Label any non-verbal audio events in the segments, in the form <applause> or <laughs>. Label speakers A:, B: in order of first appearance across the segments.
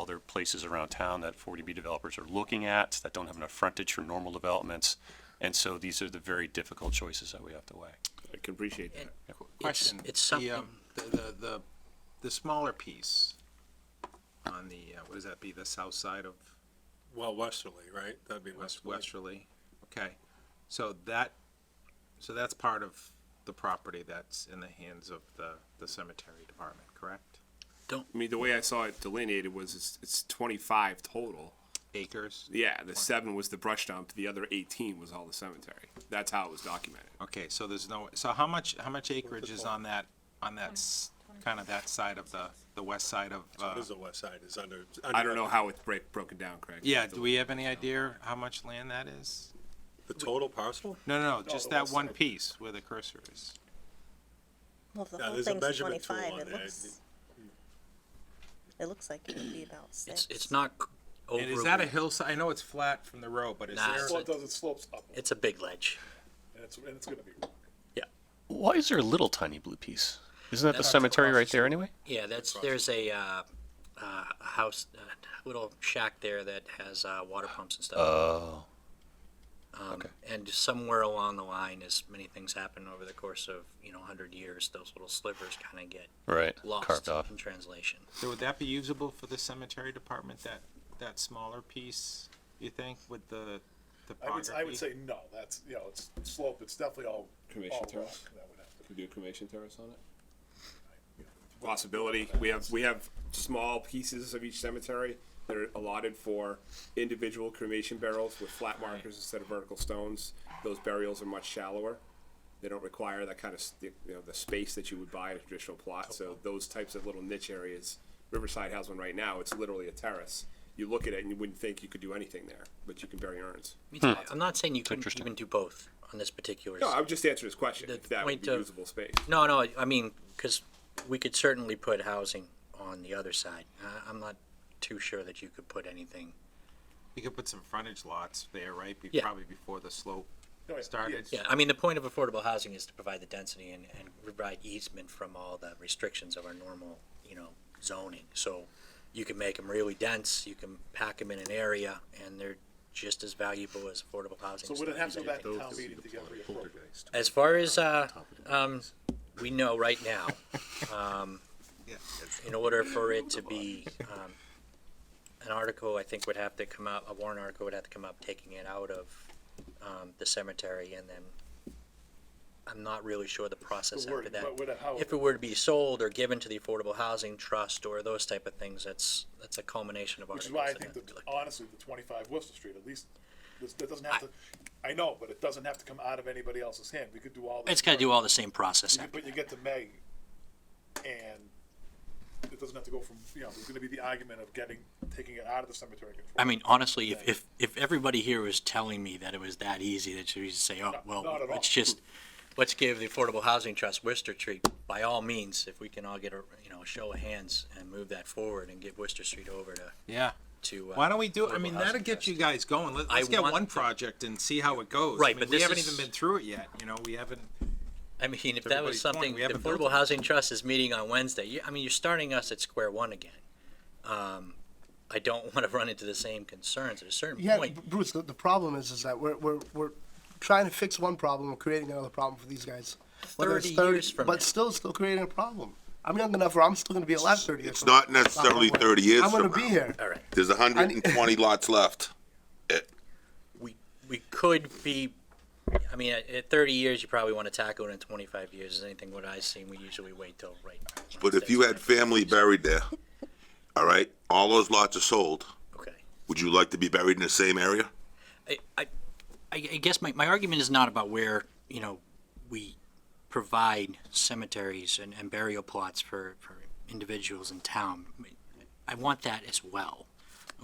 A: other places around town that 40B developers are looking at that don't have enough frontage for normal developments. And so these are the very difficult choices that we have to weigh.
B: I can appreciate that.
C: And it's,
D: Question.
C: it's
D: The,
C: something,
D: um, the, the, the, the smaller piece on the, uh, what does that be, the south side of
E: Well, westerly, right? That'd be
D: West
E: westerly.
D: Westerly? Okay, so that, so that's part of the property that's in the hands of the, the cemetery department, correct?
B: I mean, the way I saw it delineated was it's, it's twenty-five total.
D: Acres?
B: Yeah, the seven was the brush dump, the other eighteen was all the cemetery. That's how it was documented.
D: Okay, so there's no, so how much, how much acreage is on that, on that, s- kind of that side of the, the west side of,
E: So
D: uh,
E: it is the west side is under.
B: I don't know how it's break, broken down, Craig.
D: yeah, do we have any idea how much land that is?
E: The total parcel?
D: No, no, no, just that one piece where the cursor is.
F: Well, if the
E: Yeah,
F: whole
E: there's a
F: thing's
E: measurement tool
F: twenty-five,
E: on
F: it
E: there.
F: looks. It looks like it would be about six.
C: it's, it's not c-
D: And is that a
C: overly,
D: hillside? I know it's flat from the road, but is
C: Nah,
D: there?
C: it's
G: Well, it does, it slopes up, and
C: it's a big ledge.
G: it's, and it's gonna be,
A: Why is there a little tiny blue piece? Isn't that the
C: That's
A: cemetery
C: across
A: right
C: the
A: there anyway?
C: Yeah, that's, there's a, uh, uh, a house, a little shack there that has, uh, water pumps and stuff.
A: Oh,
C: Um, and somewhere along the line, as many things happen over the course of, you know, hundred years, those little slivers kinda get
A: right,
C: lost
A: carved off.
C: in translation.
D: So would that be usable for the cemetery department, that, that smaller piece, you think, with the
G: I would,
D: topography?
G: I would say no, that's, you know, it's slope, it's definitely all,
B: Cremation
G: all rock, that would
B: terrace?
G: have to
B: Could do a cremation terrace on it? Possibility. We have, we have small pieces of each cemetery that are allotted for individual cremation barrels with flat markers instead of vertical stones. Those burials are much shallower. They don't require that kind of, st- you know, the space that you would buy in a traditional plot, so those types of little niche areas. Riverside has one right now, it's literally a terrace. You look at it and you wouldn't think you could do anything there, but you can bury urns.
C: I mean, I'm not saying you couldn't
A: Hmm. Interesting.
C: even do both on this particular.
B: No, I would just answer his question,
C: The
B: if that would
C: point
B: be
C: of-
B: usable space.
C: No, no, I mean, because we could certainly put housing on the other side. I- I'm not too sure that you could put anything.
D: You could put some frontage lots there, right? Be-
C: Yeah.
D: Probably before the slope
G: No, Oh, yeah,
D: started.
C: Yeah, I mean, the point of affordable housing is to provide the density and, and provide easement from all the restrictions of our normal, you know, zoning. So you can make them really dense, you can pack them in an area, and they're just as valuable as affordable housing.
G: So would it have to go back to town meeting to get reappropriated?
C: As far as, uh, um, we know right now, um,
D: Yeah, that's-
C: in order for it to be, um, an article, I think would have to come up, a warrant article would have to come up, taking it out of, um, the cemetery and then I'm not really sure the process
G: The word-
C: after that.
G: what- what- how-
C: If it were to be sold or given to the Affordable Housing Trust or those type of things, that's, that's a culmination of
G: Which is
C: articles.
G: why
C: that
G: I think
C: have to
G: that
C: be looked at.
G: honestly, the twenty-five Worcester Street, at least, this, that doesn't have to, I know, but it doesn't have to come out of anybody else's hand, we could do all this.
C: It's gotta
G: work.
C: do all the same process.
G: You get- But you get to May, and it doesn't have to go from, you know, there's gonna be the argument of getting, taking it out of the cemetery. and
C: I mean, honestly, if, if, if everybody here was telling me that it was that easy, that you just say, oh,
G: No,
C: well,
G: not at
C: let's
G: all.
C: just, let's give the Affordable Housing Trust Worcester Street, by all means, if we can all get a, you know, a show of hands and move that forward and get Worcester Street over to,
D: Yeah,
C: to. uh,
D: why don't we do, it? I
C: Affordable
D: mean,
C: Housing
D: that'll get
C: Trust.
D: you guys going. Let-
C: I
D: Let's get
C: want
D: one
C: to-
D: project and see how it goes. I
C: Right,
D: mean,
C: but
D: We
C: this
D: haven't
C: is-
D: even been through it yet, you know, we haven't,
C: I mean, if that
D: everybody's
C: was
D: point,
C: something,
D: we
C: the
D: haven't built
C: Affordable
D: it.
C: Housing Trust is meeting on Wednesday, you, I mean, you're starting us at square one again. Um, I don't <laughs> wanna run into the same concerns at a certain
H: Yeah,
C: point.
H: Br- Bruce, the, the problem is, is that we're, we're, we're trying to fix one problem and creating another problem for these guys. Whether it's
C: 30 years from
H: But
C: now.
H: still, still creating a problem. I'm young enough where I'm still gonna be alive thirty years
I: It's
H: from now.
I: not necessarily
H: Not that way.
I: 30 years
H: I'm gonna
I: from
H: be
I: now.
H: here.
C: All right.
I: There's 120 lots left.
C: we we could be. I mean, at, at 30 years, you probably want to tackle it. In 25 years, is anything what I've seen, we usually wait till right.
I: But if you had family buried there, all right, all those lots are sold.
C: okay,
I: Would you like to be buried in the same area?
C: I I, I I guess my, my argument is not about where you know we provide cemeteries and, and burial plots for for individuals in town. I want that as well.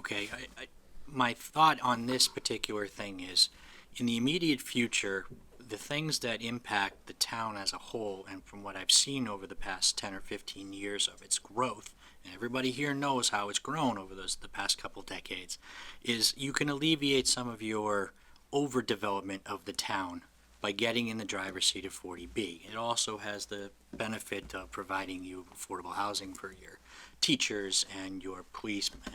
C: Okay, I, I, my thought on this particular thing is, in the immediate future, the things that impact the town as a whole, and from what I've seen over the past ten or fifteen years of its growth, and everybody here knows how it's grown over those, the past couple decades, is you can alleviate some of your overdevelopment of the town by getting in the driver's seat of forty B. It also has the benefit of providing you affordable housing for your teachers and your policemen